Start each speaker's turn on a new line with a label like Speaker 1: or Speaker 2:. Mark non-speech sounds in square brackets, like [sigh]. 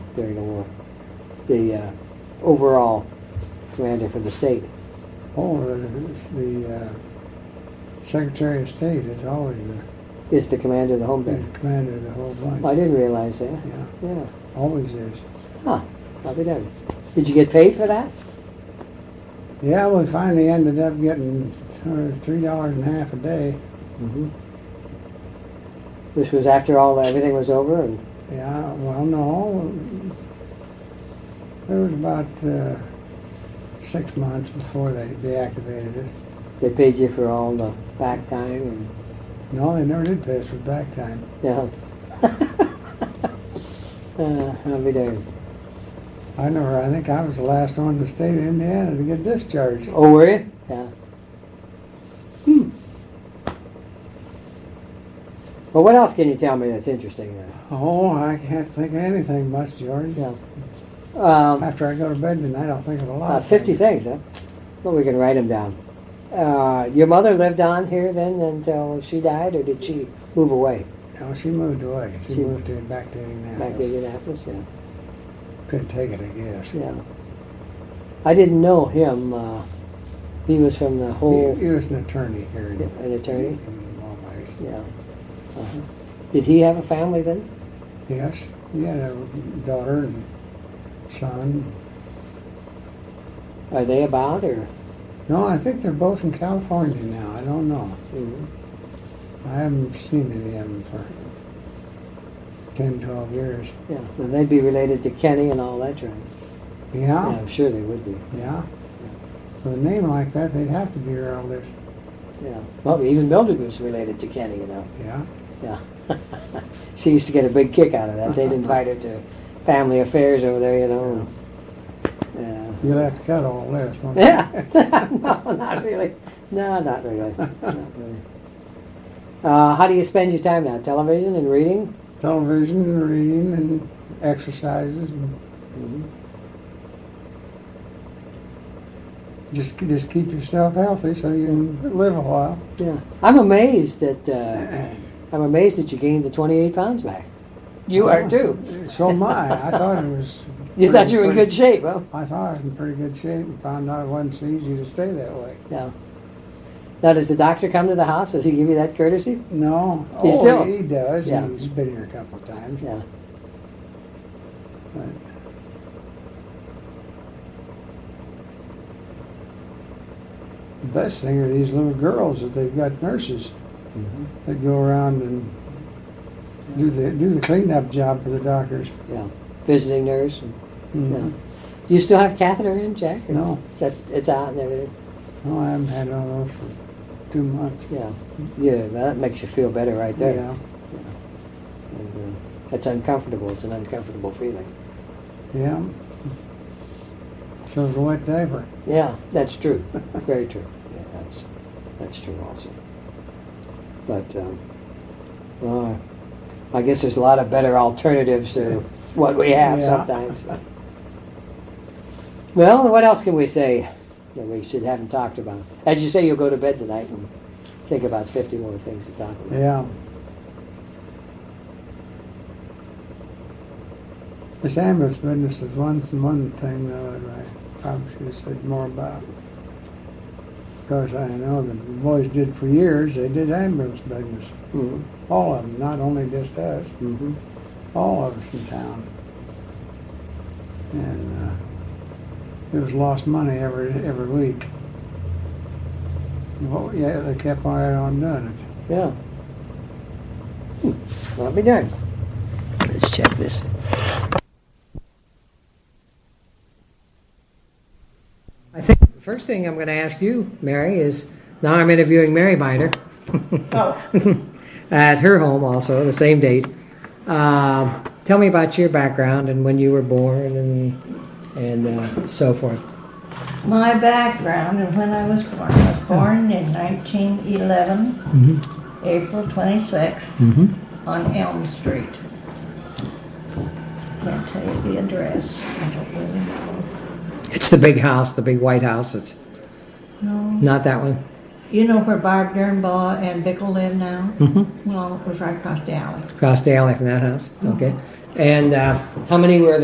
Speaker 1: during the war. The uh, overall commander for the state.
Speaker 2: Oh, it's the uh, Secretary of State is always the,
Speaker 1: is the commander of the home
Speaker 2: is
Speaker 1: base.
Speaker 2: the commander of the whole bunch.
Speaker 1: I didn't realize that.
Speaker 2: Yeah,
Speaker 1: Yeah.
Speaker 2: always is.
Speaker 1: Huh. I'll be darned. Did you get paid for that?
Speaker 2: Yeah, we finally ended up getting uh, three dollars and a half a day.
Speaker 1: Mm-hmm. This was after all everything was over, and
Speaker 2: Yeah, well, no, it was about uh, six months before they deactivated us.
Speaker 1: they paid you for all the back time and
Speaker 2: No, they never did pay us with back time.
Speaker 1: yeah. [laughs] uh, I'll be darned.
Speaker 2: I never, I think I was the last one to state of Indiana to get discharged.
Speaker 1: Oh, were you? Yeah. Hmm. Well, what else can you tell me that's interesting? Then?
Speaker 2: Oh, I can't think of anything much, George.
Speaker 1: Um,
Speaker 2: After I go to bed tonight, I'll think of a lot.
Speaker 1: Uh,
Speaker 2: of
Speaker 1: Fifty
Speaker 2: things.
Speaker 1: things, huh? Well, we can write them down. Uh, your mother lived on here then until she died, or did she move away
Speaker 2: No, Oh, she moved away. She,
Speaker 1: She-
Speaker 2: moved to
Speaker 1: back
Speaker 2: back to
Speaker 1: to
Speaker 2: Indianapolis.
Speaker 1: Indianapolis? Yeah,
Speaker 2: Couldn't take it, I guess.
Speaker 1: yeah. I didn't know him. Uh, he was from the whole,
Speaker 2: He, he was an attorney here. In,
Speaker 1: Oh. an attorney.
Speaker 2: in Always.
Speaker 1: Yeah. Uh-huh. Did he have a family then?
Speaker 2: Yes, he had a daughter and son.
Speaker 1: Are they about or?
Speaker 2: No, I think they're both in California now. I don't know.
Speaker 1: Mhm.
Speaker 2: I haven't seen any of them for 10, 12 years.
Speaker 1: Yeah, then they'd be related to Kenny and all that, right? Yeah,
Speaker 2: Yeah,
Speaker 1: I'm sure they would be.
Speaker 2: yeah. With a name like that, they'd have to be relatives.
Speaker 1: Yeah. Well, even Mildred was related to Kenny, you know.
Speaker 2: Yeah.
Speaker 1: Yeah. [laughs] she used to get a big kick out of that. They'd invite her to family affairs over there, you know. and-
Speaker 2: You'll have to cut all this. won't you?
Speaker 1: Yeah. [laughs] yeah. no, not really. No, not really. Not really. Uh, how do you spend your time now? Television and reading?
Speaker 2: Television and reading and exercises and
Speaker 1: Mm-hmm.
Speaker 2: just just keep yourself healthy so you can live a while. [clears throat]
Speaker 1: Yeah. I'm amazed that uh, I'm amazed that you gained the 28 pounds back. Oh. You are too.
Speaker 2: So am I. I thought it was.
Speaker 1: You thought you were in
Speaker 2: pretty-
Speaker 1: good shape, huh?
Speaker 2: I thought I was in pretty good shape and found out it wasn't so easy to stay that way.
Speaker 1: No. Now, does the doctor come to the house? Does he give you that courtesy?
Speaker 2: No.
Speaker 1: He's
Speaker 2: oh,
Speaker 1: still-
Speaker 2: he does.
Speaker 1: Yeah.
Speaker 2: He's been here a couple of times.
Speaker 1: Yeah.
Speaker 2: But the best thing are these little girls that they've got nurses
Speaker 1: Mm-hmm.
Speaker 2: that go around and do the do the cleanup job for the doctors.
Speaker 1: Yeah. Visiting nurse. and-
Speaker 2: Mhm.
Speaker 1: Do you still have catheter in, Jack? or-
Speaker 2: No.
Speaker 1: That's, it's out and everything?
Speaker 2: No, I haven't had one of those for two months.
Speaker 1: Yeah. Yeah, that makes you feel better right there.
Speaker 2: Yeah,
Speaker 1: And, uh, It's uncomfortable. It's an uncomfortable feeling.
Speaker 2: yeah. So it's a wet diaper.
Speaker 1: Yeah, that's
Speaker 2: [laughs]
Speaker 1: true. Very true. Yeah, that's, that's true also. But, um, uh, I guess there's a lot of better alternatives
Speaker 2: [laughs]
Speaker 1: to what we have
Speaker 2: Yeah.
Speaker 1: sometimes. Well, what else can we say that we should haven't talked about? As you say, you'll go to bed tonight and think about 50 more things to talk about.
Speaker 2: Yeah. This ambulance business is one, one thing though that I probably should have said more about. Because I know that the boys did for years, they did ambulance business.
Speaker 1: Mhm.
Speaker 2: All of them, not only just us,
Speaker 1: Mhm.
Speaker 2: all of us in town. And uh, it was lost money every, every week. Well, yeah, they kept right on doing it.
Speaker 1: Yeah. Hmm. Well, I'll be darned. Let's check this. I think the first thing I'm going to ask you, Mary, is now I'm interviewing Mary Miner [laughs] at her home also, the same date. Um, tell me about your background and when you were born and, and uh, so forth.
Speaker 3: My background and when I was born, I was born in 1911,
Speaker 1: Mm-hmm.
Speaker 3: April 26th, on Elm Street. Can't tell you the address. I don't really know.
Speaker 1: It's the big house, the big white house. It's
Speaker 3: No.
Speaker 1: not that one.
Speaker 3: You know where Barb Dernbaugh and Bickle live now?
Speaker 1: Mm-hmm.
Speaker 3: Well, it was right across the alley.
Speaker 1: across the alley from that house, okay? And uh, how many were